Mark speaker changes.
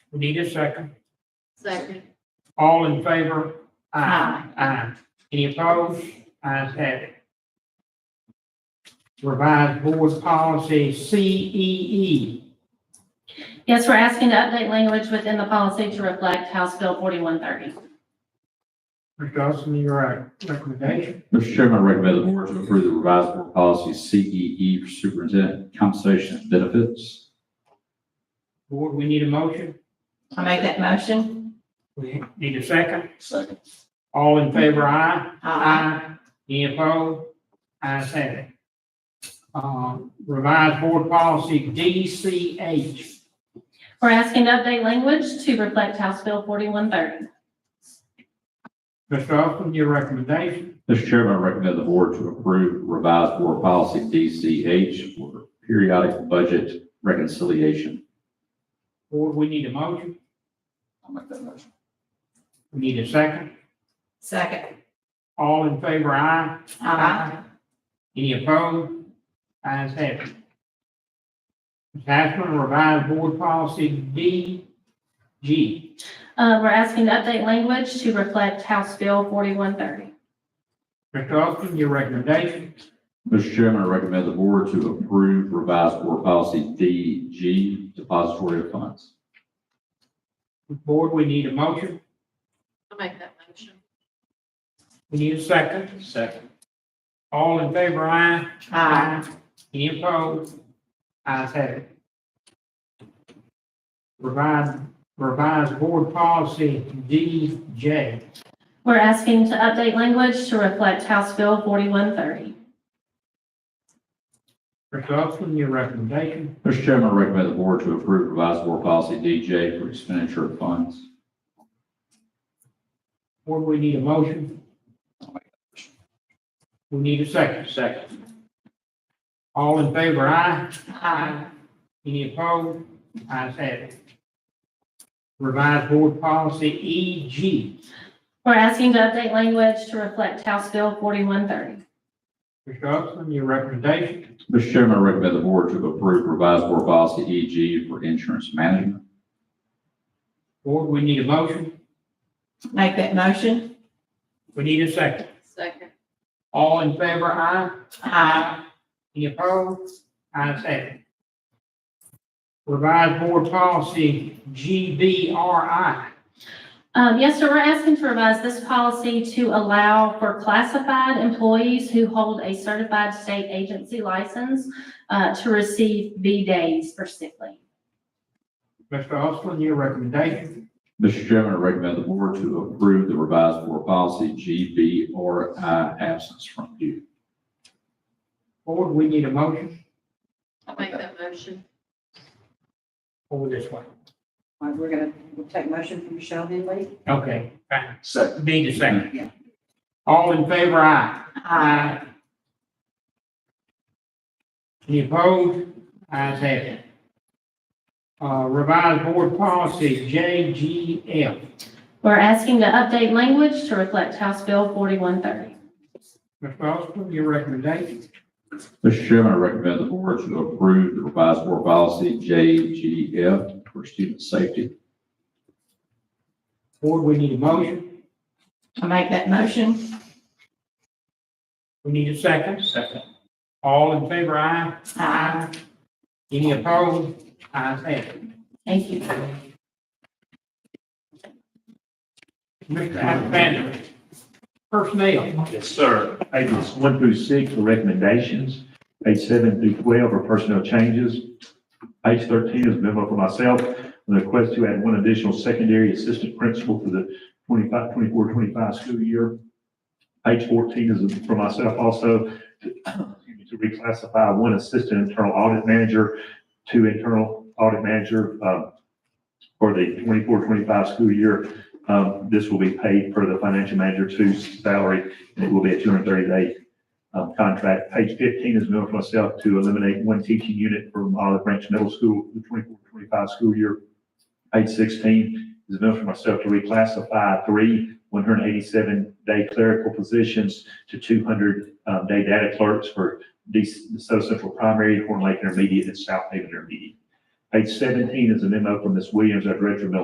Speaker 1: We Need a second?
Speaker 2: Second.
Speaker 1: All in favor? Aye. Any opposed? Ayes have it. Revised Board Policy E CEE.
Speaker 3: Yes, we're asking to update language within the policy to reflect House Bill 4130.
Speaker 1: Mr. Dawson, your uh, recommendation?
Speaker 4: Mr. Chairman, I recommend the board to approve the revised board policy CEE for superintendent compensation and benefits.
Speaker 1: Board, we need a motion?
Speaker 2: I make that motion.
Speaker 1: We need a second?
Speaker 4: Second.
Speaker 1: All in favor? Aye. Aye. Any opposed? Ayes have it. Um, Revised Board Policy DCH.
Speaker 3: We're asking to update language to reflect House Bill 4130.
Speaker 1: Mr. Austin, your recommendation?
Speaker 4: Mr. Chairman, I recommend the board to approve revised board policy DCH for periodic budget reconciliation.
Speaker 1: Board, we need a motion?
Speaker 4: I'll make that motion.
Speaker 1: We need a second?
Speaker 2: Second.
Speaker 1: All in favor? Aye.
Speaker 2: Aye.
Speaker 1: Any opposed? Ayes have it. Ms. Haseman, revised board policy DG.
Speaker 3: Uh, We're asking to update language to reflect House Bill 4130.
Speaker 1: Mr. Austin, your recommendation?
Speaker 4: Mr. Chairman, I recommend the board to approve revised board policy DG depository of funds.
Speaker 1: Board, we need a motion?
Speaker 2: I'll make that motion.
Speaker 1: We need a second?
Speaker 4: Second.
Speaker 1: All in favor? Aye.
Speaker 2: Aye.
Speaker 1: Any opposed? Ayes have it. Revised, revised board policy DJ.
Speaker 3: We're asking to update language to reflect House Bill 4130.
Speaker 1: Mr. Upson, your recommendation.
Speaker 4: Mr. Chairman, I recommend the board to approve revised board policy DJ for expenditure of funds.
Speaker 1: Board, we need a motion. We need a second. Second. All in favor, aye.
Speaker 2: Aye.
Speaker 1: Any opposed? Ayes have it. Revised board E policy
Speaker 3: We're asking to update language to reflect House Bill 4130.
Speaker 1: EG. Mr. Upson, your recommendation.
Speaker 4: Mr. Chairman, I recommend the board to approve revised board policy EG for insurance management.
Speaker 1: Board, we need a motion.
Speaker 2: Make that motion.
Speaker 1: We need a second.
Speaker 2: Second.
Speaker 1: All in favor, aye.
Speaker 2: Aye.
Speaker 1: Any opposed? Ayes have it. Revised board policy GBRI.
Speaker 3: Um, Yes, sir, we're asking to revise this policy to allow for classified employees who hold a certified state agency license uh, to receive B days for sick leave.
Speaker 1: Mr. Austin, your recommendation.
Speaker 4: Mr. Chairman, I recommend the board to approve the revised board policy GBRI absence from view.
Speaker 1: Board, we need a motion.
Speaker 2: I'll make that motion.
Speaker 1: Over this way.
Speaker 5: All right, we're gonna, we'll take motion from Michelle Henley.
Speaker 1: Okay, fine.
Speaker 4: Second.
Speaker 1: Need a
Speaker 5: Yeah.
Speaker 1: second. All in favor, aye. Any opposed? Ayes have it. Uh, revised board policy JGF.
Speaker 3: We're asking to update language to reflect House Bill 4130.
Speaker 1: Mr. Austin, your recommendation.
Speaker 4: Mr. Chairman, I recommend the board to approve the revised board policy JGF for student safety.
Speaker 1: Board, we need a motion.
Speaker 2: I'll make that motion.
Speaker 1: We need a second. Second. All in favor, aye.
Speaker 2: Aye.
Speaker 1: Any opposed? Ayes have it.
Speaker 3: Thank you.
Speaker 1: Mr. Alexander, personnel,
Speaker 6: Yes, sir. Pages one through six are recommendations. Page seven through twelve are personnel changes. Page thirteen is a memo for myself, the request to add one additional secondary assistant principal for the 25, 24, 25 school year. Page fourteen is for myself also, to excuse me, to reclassify one assistant internal audit manager to internal audit manager, um, for the 24-25 school year. Um, this will be paid per the financial manager two's salary and it will be a two hundred thirty day um, contract. Page fifteen is known for myself to eliminate one teaching unit from Olive Branch Middle School, the 24-25 school year. Page sixteen is known for myself to reclassify three one hundred eighty-seven day clerical positions to two hundred um, day data clerks for the South Central Primary, Horn Lake Intermediate, and South Haven Intermediate. Page seventeen is a memo from Ms. Williams, our Director of Middle